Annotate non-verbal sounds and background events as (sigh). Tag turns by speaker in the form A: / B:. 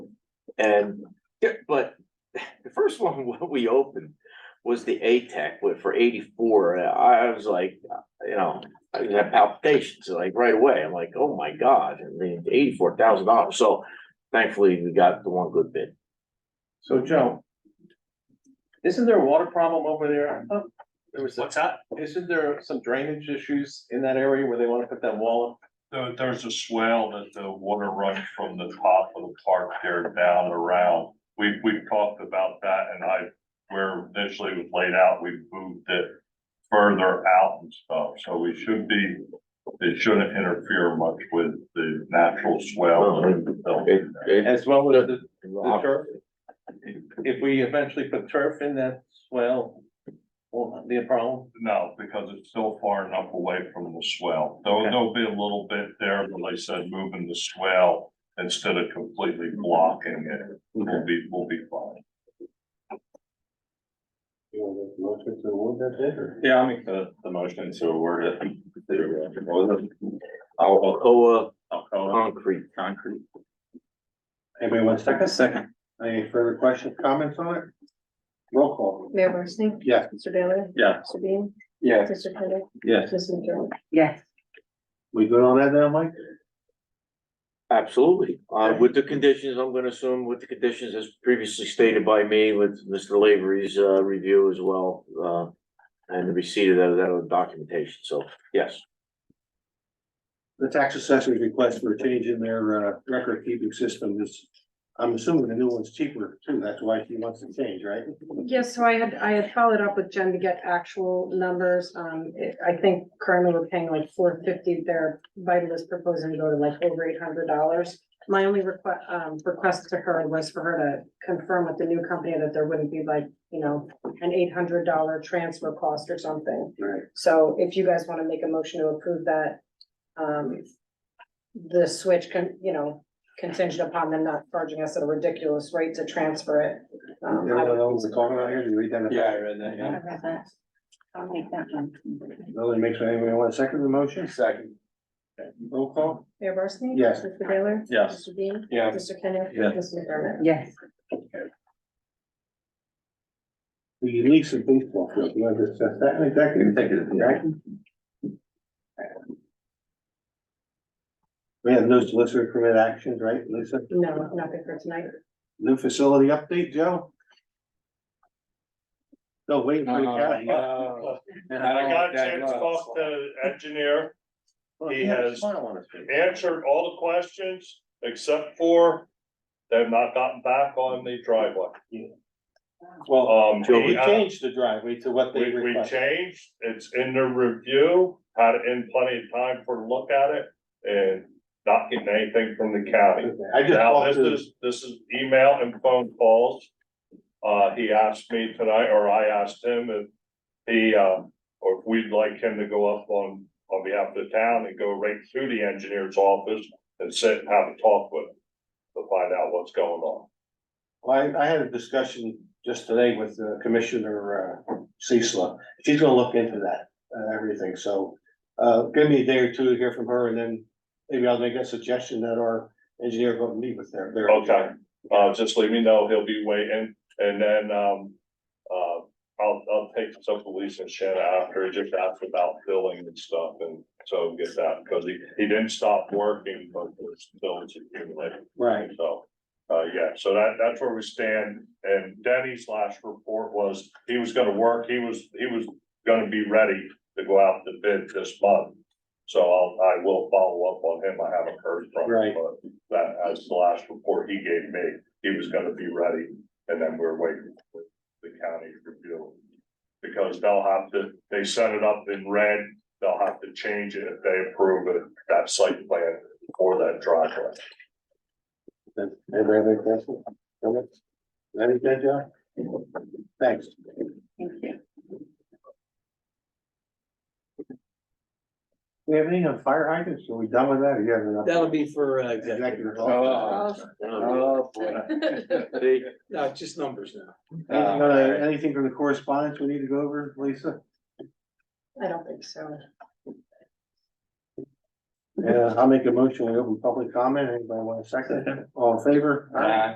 A: And, yeah, but the first one, (laughs) what we opened was the ATEC, what for eighty-four, I I was like, uh, you know, I had palpitations, like right away, I'm like, oh my God, I mean, eighty-four thousand dollars, so thankfully we got the one good bid.
B: So Joe, isn't there a water problem over there? I thought There was,
C: What's that?
B: isn't there some drainage issues in that area where they wanna put that wall
C: There, there's a swale that the water runs from the top of the park there down around. We, we've talked about that and I, where initially it was laid out, we moved it further out and stuff. So we should be, it shouldn't interfere much with the natural swale. that we built in there.
B: up as well as the, the
D: Uh,
A: It-
B: turf? If we eventually put turf in that swell, will not be a problem?
C: No, because it's still far enough away from the swale. There'll,
B: Okay.
C: there'll be a little bit there, but like I said, moving the swale instead of completely blocking it will be, will be fine.
D: Yeah, I'll make the, the motion to award it. to, uh, what was it? I'll,
A: Alcoa
D: I'll call it
A: concrete.
D: concrete.
B: Anybody want
D: Second, second.
B: any further questions, comments on it? Roll call.
E: Mayor Barsney?
B: Yes.
E: Mr. Baylor?
D: Yeah,
E: Mr. Bean?
B: Yes.
E: Mr. Kenneth?
D: yes.
E: Mr. McDermott?
F: Yes,
B: We good on that now, Mike?
A: Absolutely, uh, with the conditions, I'm gonna assume with the conditions as previously stated by me with Mr. Lavery's, uh, review as well, uh. And the receipt of that, that documentation, so, yes.
B: The tax assessor's request for a change in their uh record keeping system is, I'm assuming the new one's cheaper too, that's why she wants to change, right?
G: Yes, so I had, I had followed up with Jen to get actual numbers. Um, it- I think currently we're paying like four fifty there. Vital is proposing to go to like over eight hundred dollars. My only request, um, request to her was for her to confirm with the new company that there wouldn't be like, you know, an eight hundred dollar transfer cost or something.
B: Right.
G: So if you guys want to make a motion to approve that, um, the switch can, you know, contingent upon them not charging us at a ridiculous rate to transfer it. Um, I
B: Everyone knows what's going on here, you read that?
D: I read that,
F: I read that. I'll make that one.
B: Nobody makes, anybody want a second motion? Second. Roll call?
G: Mayor Barsney?
B: Yes.
G: Mr. Baylor?
D: Yes.
G: Mr. Bean?
B: Yeah.
G: Mr. Kenneth?
D: Yes.
G: Mr. McDermott?
F: Yes,
B: The lease and baseball field, you want to discuss that in executive? Executive. We have no solicitor permit actions, right, Lisa?
G: No, nothing for tonight.
B: New facility update, Joe? No, wait. for the
C: Uh,
B: cat. Uh,
C: I got a chance to talk to the engineer, He has-
B: Smile on his face.
C: answered all the questions except for they've not gotten back on the driveway.
B: Well,
C: Um,
A: Joe,
B: we
C: he, uh,
B: changed the driveway to what they
C: we, we
B: requested.
C: changed, it's in the review, had it in plenty of time for a look at it and not getting anything from the county.
B: I just
C: Now, this
B: talked to,
C: is, this is email and phone calls. Uh, he asked me tonight, or I asked him if he, uh, or if we'd like him to go up on, on behalf of the town and go right through the engineer's office and sit and have a talk with him to find out what's going on.
B: Well, I, I had a discussion just today with uh, Commissioner, uh, Cecil. She's gonna look into that, uh, everything, so. Uh, give me a day or two to hear from her and then maybe I'll make a suggestion that our engineer go meet with their, their.
C: Okay, uh, just let me know, he'll be waiting, and then, um, uh, I'll, I'll take some police and shit after, just ask about billing and stuff, and so get that, because he, he didn't stop working, but there's still, it's accumulating,
B: Right,
C: so. Uh, yeah, so that, that's where we stand, and Denny's last report was, he was gonna work, he was, he was gonna be ready to go out to bid this month. So I'll, I will follow up on him, I haven't heard from
B: Right.
C: him, but that, that's the last report he gave me, he was gonna be ready, and then we're waiting for the county to review. Because they'll have to, they set it up in red, they'll have to change it if they approve it, that site plan or that driveway.
B: Does Anybody have any questions? Comments? That is that, Joe? Thanks.
F: thank you.
B: We have any on fire hydrants? Are we done with that? Or you have enough?
H: That'll be for uh, executive.
B: Executive. Oh. office.
G: Oh.
A: Oh, See,
H: No, it's just numbers now.
B: Anything, uh, anything from the correspondence we need to go over, Lisa?
G: (laughs) I don't think so.
B: Yeah, I'll make a motion, we open public comment, anybody want a second, all in favor?
D: Aye.